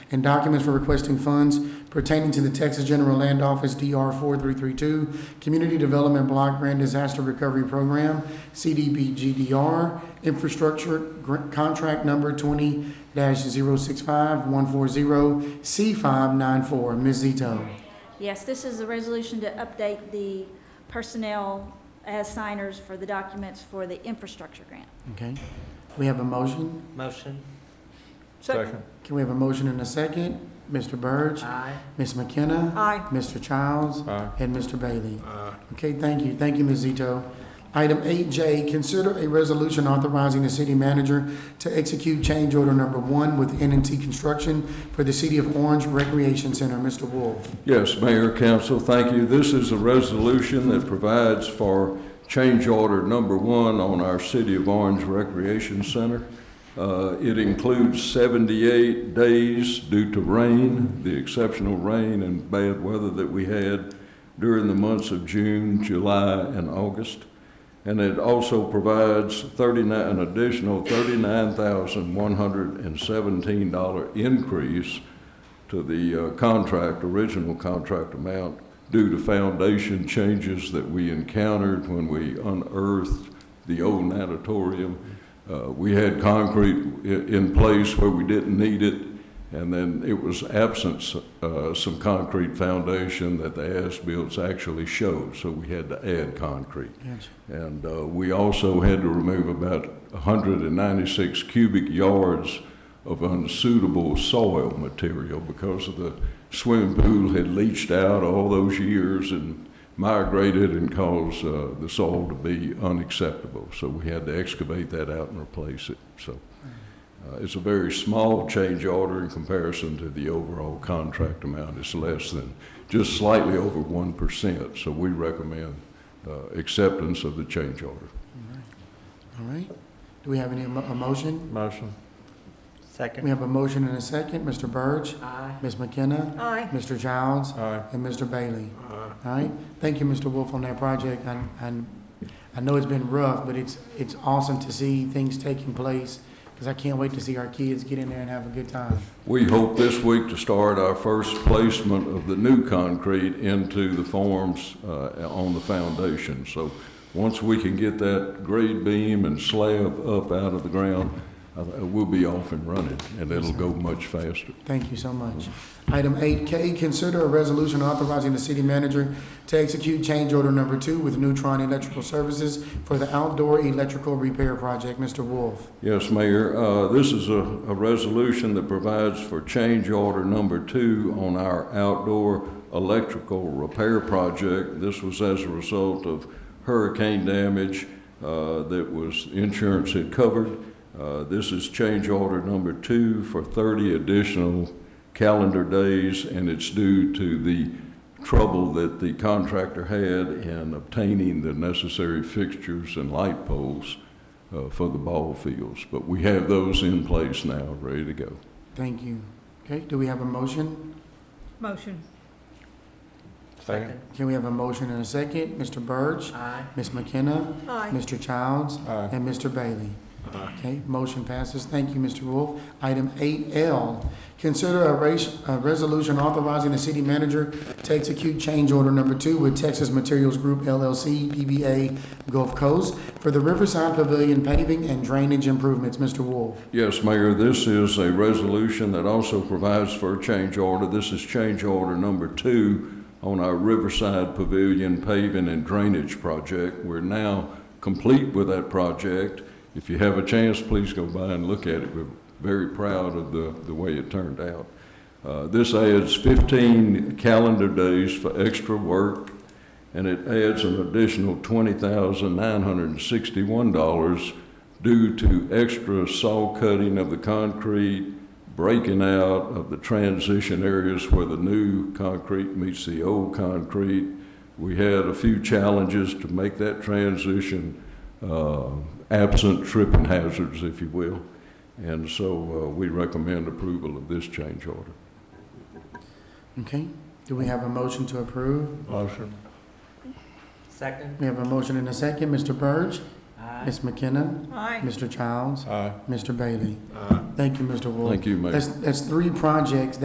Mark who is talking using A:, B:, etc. A: and documents for requesting funds pertaining to the Texas General Land Office DR 4332, Community Development Block Grant Disaster Recovery Program, CDBGDR, Infrastructure Gr- Contract Number 20-065140C594. Ms. Zito.
B: Yes, this is a resolution to update the personnel as signers for the documents for the infrastructure grant.
A: Okay. We have a motion.
C: Motion.
D: Second.
A: Can we have a motion and a second? Mr. Burge,
C: Aye.
A: Ms. McKenna.
B: Aye.
A: Mr. Childs.
D: Aye.
A: And Mr. Bailey. Okay, thank you. Thank you, Ms. Zito. Item eight J, consider a resolution authorizing the city manager to execute change order number one with N and T Construction for the City of Orange Recreation Center. Mr. Wolf.
D: Yes, Mayor, Council, thank you. This is a resolution that provides for change order number one on our City of Orange Recreation Center. Uh, It includes 78 days due to rain, the exceptional rain and bad weather that we had during the months of June, July, and August. And it also provides 39, an additional $39,117 increase to the uh, contract, original contract amount, due to foundation changes that we encountered when we unearthed the old natatorium. Uh, We had concrete i- in place where we didn't need it, and then it was absent uh, some concrete foundation that the as-built actually showed, so we had to add concrete. And uh, we also had to remove about 196 cubic yards of unsuitable soil material because of the swimming pool had leached out all those years and migrated and caused uh, the soil to be unacceptable. So we had to excavate that out and replace it. So uh, it's a very small change order in comparison to the overall contract amount. It's less than, just slightly over 1%. So we recommend uh, acceptance of the change order.
A: All right. Do we have any, emo- a motion?
D: Motion.
A: We
C: Second.
A: have a motion and a second. Mr. Burge,
C: Aye.
A: Ms. McKenna,
B: Aye.
A: Mr. Childs,
D: Aye.
A: and Mr. Bailey. All right. Thank you, Mr. Wolf, on that project. And, and I know it's been rough, but it's, it's awesome to see things taking place because I can't wait to see our kids get in there and have a good time.
D: We hope this week to start our first placement of the new concrete into the forms uh, on the foundation. So once we can get that grade beam and slab up out of the ground, uh, we'll be off and running, and it'll go much faster.
A: Thank you so much. Item eight K, consider a resolution authorizing the city manager to execute change order number two with Neutron Electrical Services for the outdoor electrical repair project. Mr. Wolf.
D: Yes, Mayor, uh, this is a, a resolution that provides for change order number two on our outdoor electrical repair project. This was as a result of hurricane damage, uh, that was, insurance had covered. Uh, this is change order number two for thirty additional calendar days, and it's due to the trouble that the contractor had in obtaining the necessary fixtures and light poles uh, for the ball fields, but we have those in place now, ready to go.
A: Thank you. Okay, do we have a motion?
B: Motion.
C: Second.
A: Can we have a motion and a second? Mr. Burge,
C: Aye.
A: Ms. McKenna,
B: Aye.
A: Mr. Childs,
D: Aye.
A: and Mr. Bailey. Okay, motion passes. Thank you, Mr. Wolf. Item eight L, consider a race, a resolution authorizing the city manager to execute change order number two with Texas Materials Group LLC, DBA Gulf Coast for the Riverside Pavilion paving and drainage improvements. Mr. Wolf.
D: Yes, Mayor, this is a resolution that also provides for a change order. This is change order number two on our Riverside Pavilion paving and drainage project. We're now complete with that project. If you have a chance, please go by and look at it. We're very proud of the, the way it turned out. Uh, This adds 15 calendar days for extra work, and it adds an additional $20,961 due to extra saw cutting of the concrete, breaking out of the transition areas where the new concrete meets the old concrete. We had a few challenges to make that transition uh, absent tripping hazards, if you will. And so uh, we recommend approval of this change order.
A: Okay, do we have a motion to approve?
D: Motion.
C: Second.
A: We have a motion and a second. Mr. Burge,
C: Aye.
A: Ms. McKenna,
B: Aye.
A: Mr. Childs,
D: Aye.
A: Mr. Bailey. Thank you, Mr. Wolf.
D: Thank you, Mayor.
A: That's, that's three projects